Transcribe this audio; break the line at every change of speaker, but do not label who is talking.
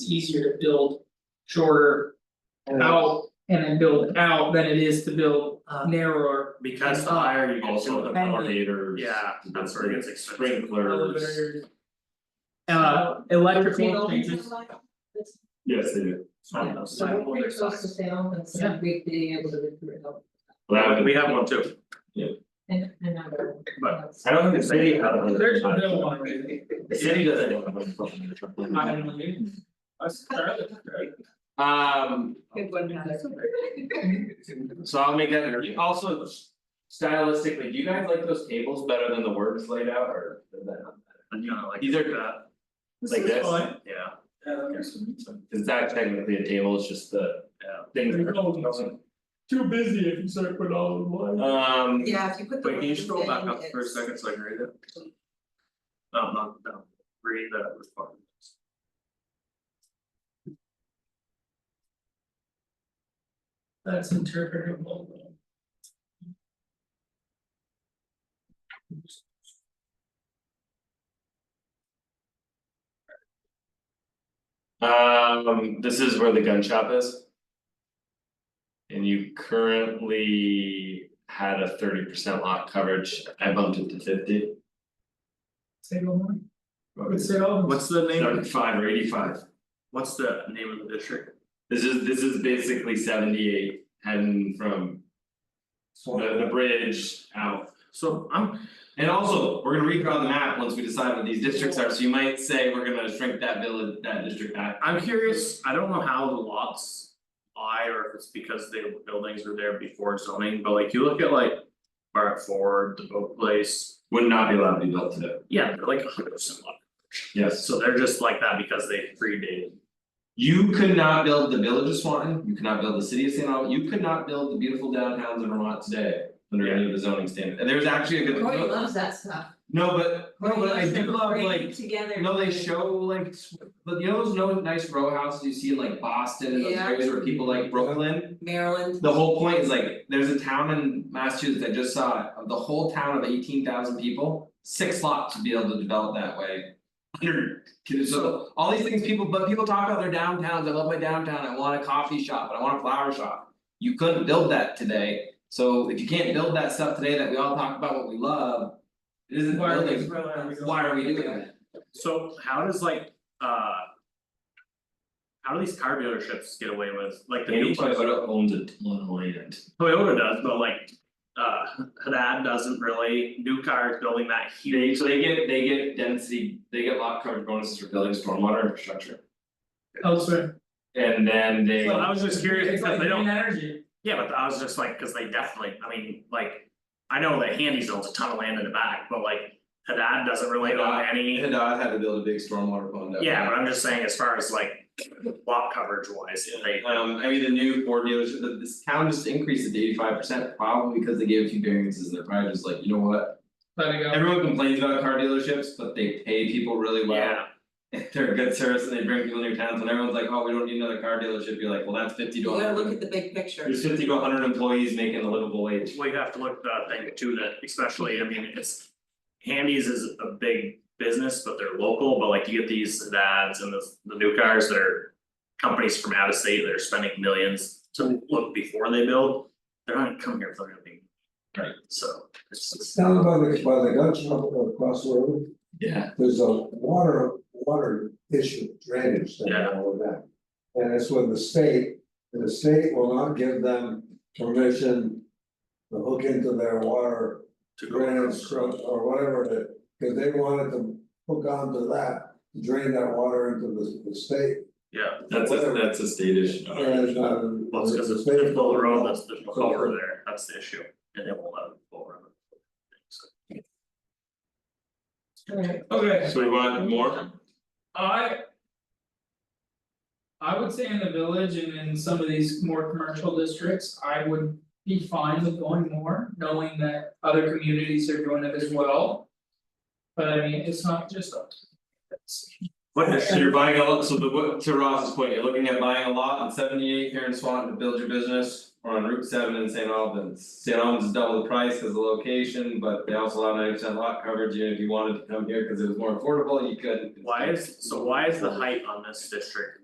easier to build shorter out and then build out than it is to build narrower.
Because the higher you go, so the
Bendy.
elevators. Yeah, that's where it gets expensive. Sprinklers.
elevators. Uh, electrical changes,
Yes, they do.
So-
So
Well,
we're pretty close to fail, and so we being able to recruit help
that would-
We have one too.
and another.
But- I don't think the city had one.
there's no one.
The city doesn't. have one.
I don't know. That's fairly fair.
Um,
Good one, Heather.
so I'll make that interview, also. Stylistically, do you guys like those tables better than the words laid out or? is that not better?
And you know, like.
These are-
uh,
Like
is
this?
fine.
Yeah,
Yeah, there's some- some-
Is that technically a table, it's just the
yeah.
things.
They're all- Too busy if you start putting all in one.
Um,
Yeah, if you put the.
Wait, can you scroll back up for a
it's-
second so I can read it? No, no, no, read that response.
That's interpretable.
um, this is where the gun shop is. And you currently had a thirty percent lock coverage, I bumped it to fifty.
Say no more, would say all.
What's the name,
Seventy-five or eighty-five,
what's the name of the district?
this is, this is basically seventy-eight heading from the the bridge out.
So I'm,
And also, we're gonna redraw the map once we decide what these districts are, so you might say we're gonna shrink that village, that district back.
I'm curious, I don't know how the lots lie or if it's because the buildings were there before zoning, but like you look at like. Barrett Ford, the boat place,
Would not be allowed to be built today,
yeah, they're like a hundred percent lot,
yes.
so they're just like that because they predated.
You could not build the village of Swanton, you could not build the city of St. Albans, you could not build the beautiful downtowns in Vermont today. Under any of the zoning standard, and there's actually a good.
Cory loves that stuff.
No, but, no, but I do love
Bring
like,
Together.
no, they show like, s- but you know those no nice row houses you see in like Boston and those
Yeah.
areas where people like Brooklyn?
Maryland.
The whole point is like, there's a town in Massachusetts, I just saw it, of the whole town of eighteen thousand people, six lots to be able to develop that way. Under, so all these things people, but people talk about their downtowns, I love my downtown, I want a coffee shop, and I want a flower shop. You couldn't build that today, so if you can't build that stuff today that we all talk about what we love, it isn't
Why are we-
building, why are we doing that?
So how does like, uh. How do these car dealerships get away with, like the new place,
owns a ton of land.
Toyota does, but like. Uh, Haddad doesn't really, new cars building that
They,
huge,
so they get, they get density, they get lot coverage bonuses for building stormwater infrastructure.
Elsewhere.
And then they,
Well, I was just curious
It's
because
like
they don't,
green energy,
yeah, but I was just like, cause they definitely, I mean, like. I know that Handy's owns a ton of land in the back, but like Haddad doesn't really own
Haddad-
any,
Hadad had to build a big stormwater pond up.
yeah, but I'm just saying as far as like. Lot coverage wise, they,
Um, I mean, the new Ford dealership, the this town just increased it to eighty five percent, probably because they gave a few variances, and they're probably just like, you know what?
let it go.
Everyone complains about car dealerships, but they pay people really well.
yeah,
They're a good service and they bring people into your towns and everyone's like, oh, we don't need another car dealership, you're like, well, that's fifty
You
to
gotta look
hundred.
at the big picture.
There's fifty to hundred employees making a livable wage.
well, you have to look at that thing too, that especially, I mean, it's. Handy's is a big business, but they're local, but like you get these Haddads and the the new cars that are. Companies from out of state that are spending millions to look before they build, they're not gonna come here if they're gonna be. Right. So it's it's-
It's down by the, by the gun shop across the road,
Yeah.
there's a water, water issue, drainage thing and all of that. And it's with the state, and the state will not give them permission to hook into their water
to go.
drainage struct or whatever it is. Cause they wanted to hook onto that, drain that water into the, the state.
Yeah,
That's a, that's a state issue.
And, uh,
well, it's because
the
it's
state-
there's no road, that's there's no culvert there, that's the issue, and they won't let them go around. it. So,
Alright.
Okay,
So we
uh,
want more?
I. I would say in the village and in some of these more commercial districts, I would be fine with going more, knowing that other communities are doing it as well. But I mean, it's not just us. It's-
What
So
issue,
you're buying a lot, so the what to Ross's point, you're looking at buying a lot on seventy eight here in Swanton to build your business or on Route seven in St. Albans. St. Albans is double the price because of the location, but they also allow ninety percent lot coverage, and if you wanted to come here because it was more affordable, you could.
why is, so why is the height on this district